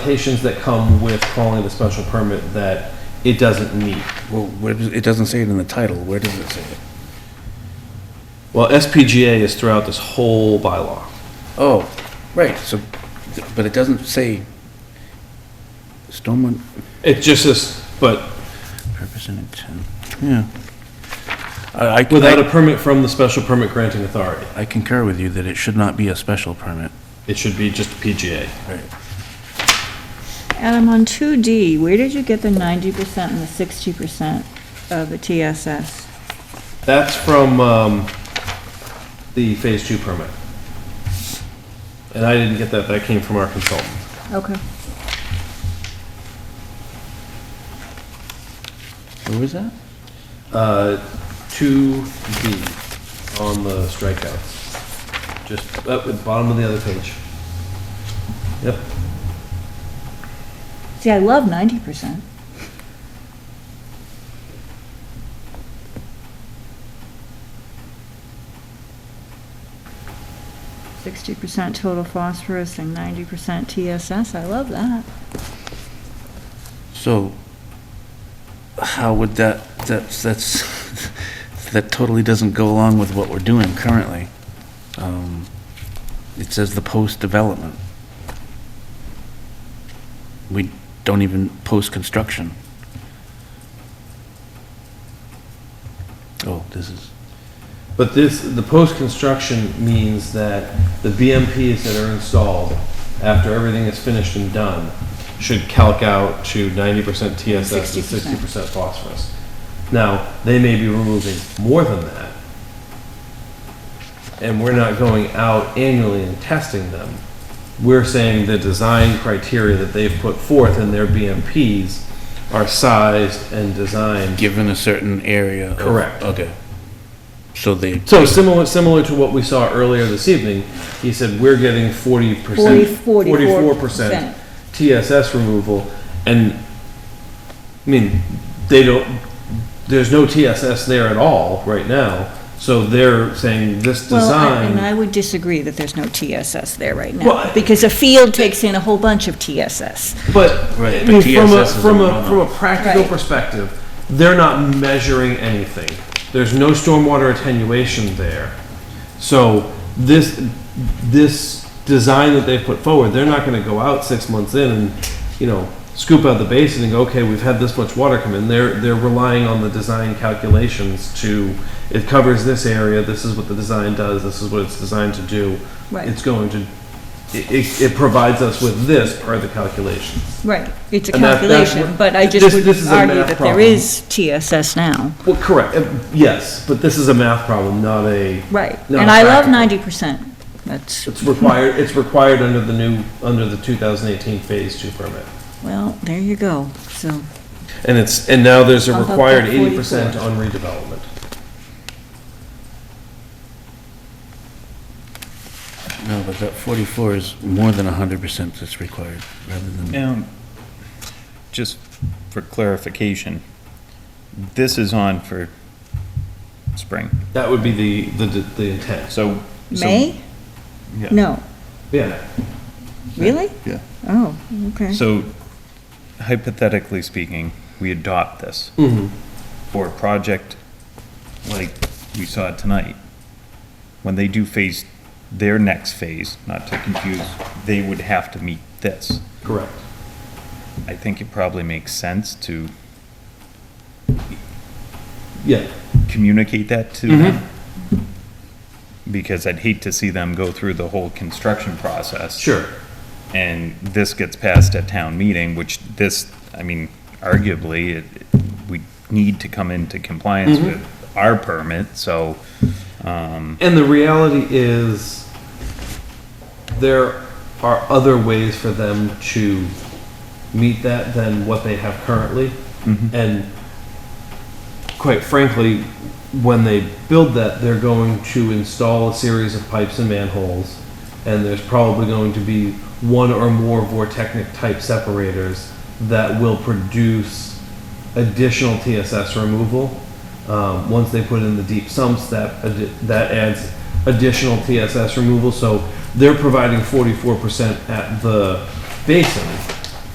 Patients that come with calling the special permit that it doesn't meet. Well, where does- it doesn't say it in the title, where does it say it? Well, SPGA is throughout this whole bylaw. Oh, right, so, but it doesn't say stormwater It just is, but purpose and intent, yeah. I- without I, a permit from the special permit granting authority, I concur with you that it should not be a special permit. it should be just PGA. Right. Adam, on 2D, where did you get the 90% and the 60% of the TSS? That's from, um, the phase two permit. And I didn't get that, that came from our consultant. Okay. Where was that? Uh, 2B on the strikeouts. Just up at the bottom of the other page. Yep. See, I love 90%. Sixty percent total phosphorus and ninety percent TSS, I love that. So, how would that, that's, that's, that totally doesn't go along with what we're doing currently. Um, It says the post-development. We don't even post-construction. Oh, this is, But this, the post-construction means that the BMPs that are installed after everything is finished and done should calc out to ninety percent TSS and 60%. sixty percent phosphorus. Now, they may be removing more than that. And we're not going out annually and testing them. We're saying the design criteria that they've put forth in their BMPs are sized and designed given a certain area. of- Correct. Okay. So they, So similar, similar to what we saw earlier this evening, he said, we're getting forty Forty- percent. 44%. TSS removal, and, I mean, they don't, there's no TSS there at all right now, so they're saying this Well, I- and design, I would disagree that there's no TSS there right Well, I- now, because a field takes in a whole bunch of TSS. but, I Right, mean, but from a, TSS is from a a, no-no. from a practical Right. perspective, they're not measuring anything. There's no stormwater attenuation there. So this, this design that they've put forward, they're not gonna go out six months in and, you know, scoop out the basin and go, okay, we've had this much water come in. They're, they're relying on the design calculations to, it covers this area, this is what the design does, this is what it's designed to do. Right. It's going to, it, it- it provides us with this per the calculations. Right, it's a And that- that's calculation, what- but I this- just would this is a argue math that problem. there is TSS now. Well, correct, uh, yes, but this is a math problem, not a. Right, No, and I love practical. ninety percent, that's, It's required, it's required under the new, under the 2018 Phase 2 permit. well, there you go, so, And it's, and now there's a Bump up to required 80% 44. on redevelopment. no, but that 44 is more than 100% that's required, rather than. Now, just for clarification, this is on for spring, That would be the, the, the intent. so. so- May? Yeah. No, Yeah, really? Yeah. Oh, okay. So hypothetically speaking, we adopt this for a project like we saw tonight. When they do phase, their next phase, not to confuse, they would have to meet this. correct. I think it probably makes sense to Yeah, communicate that to them. Because I'd hate to see them go through the whole construction process. sure. And this gets passed at town meeting, which this, I mean, arguably, it- we need to come into compliance with our permit, so, um, And the reality is, there are other ways for them to meet that than what they have currently. And quite frankly, when they build that, they're going to install a series of pipes and manholes, and there's probably going to be one or more vortechnic type separators that will produce additional TSS removal. Um, once they put in the deep sumps, that addi- that adds additional TSS removal. So they're providing 44% at the basin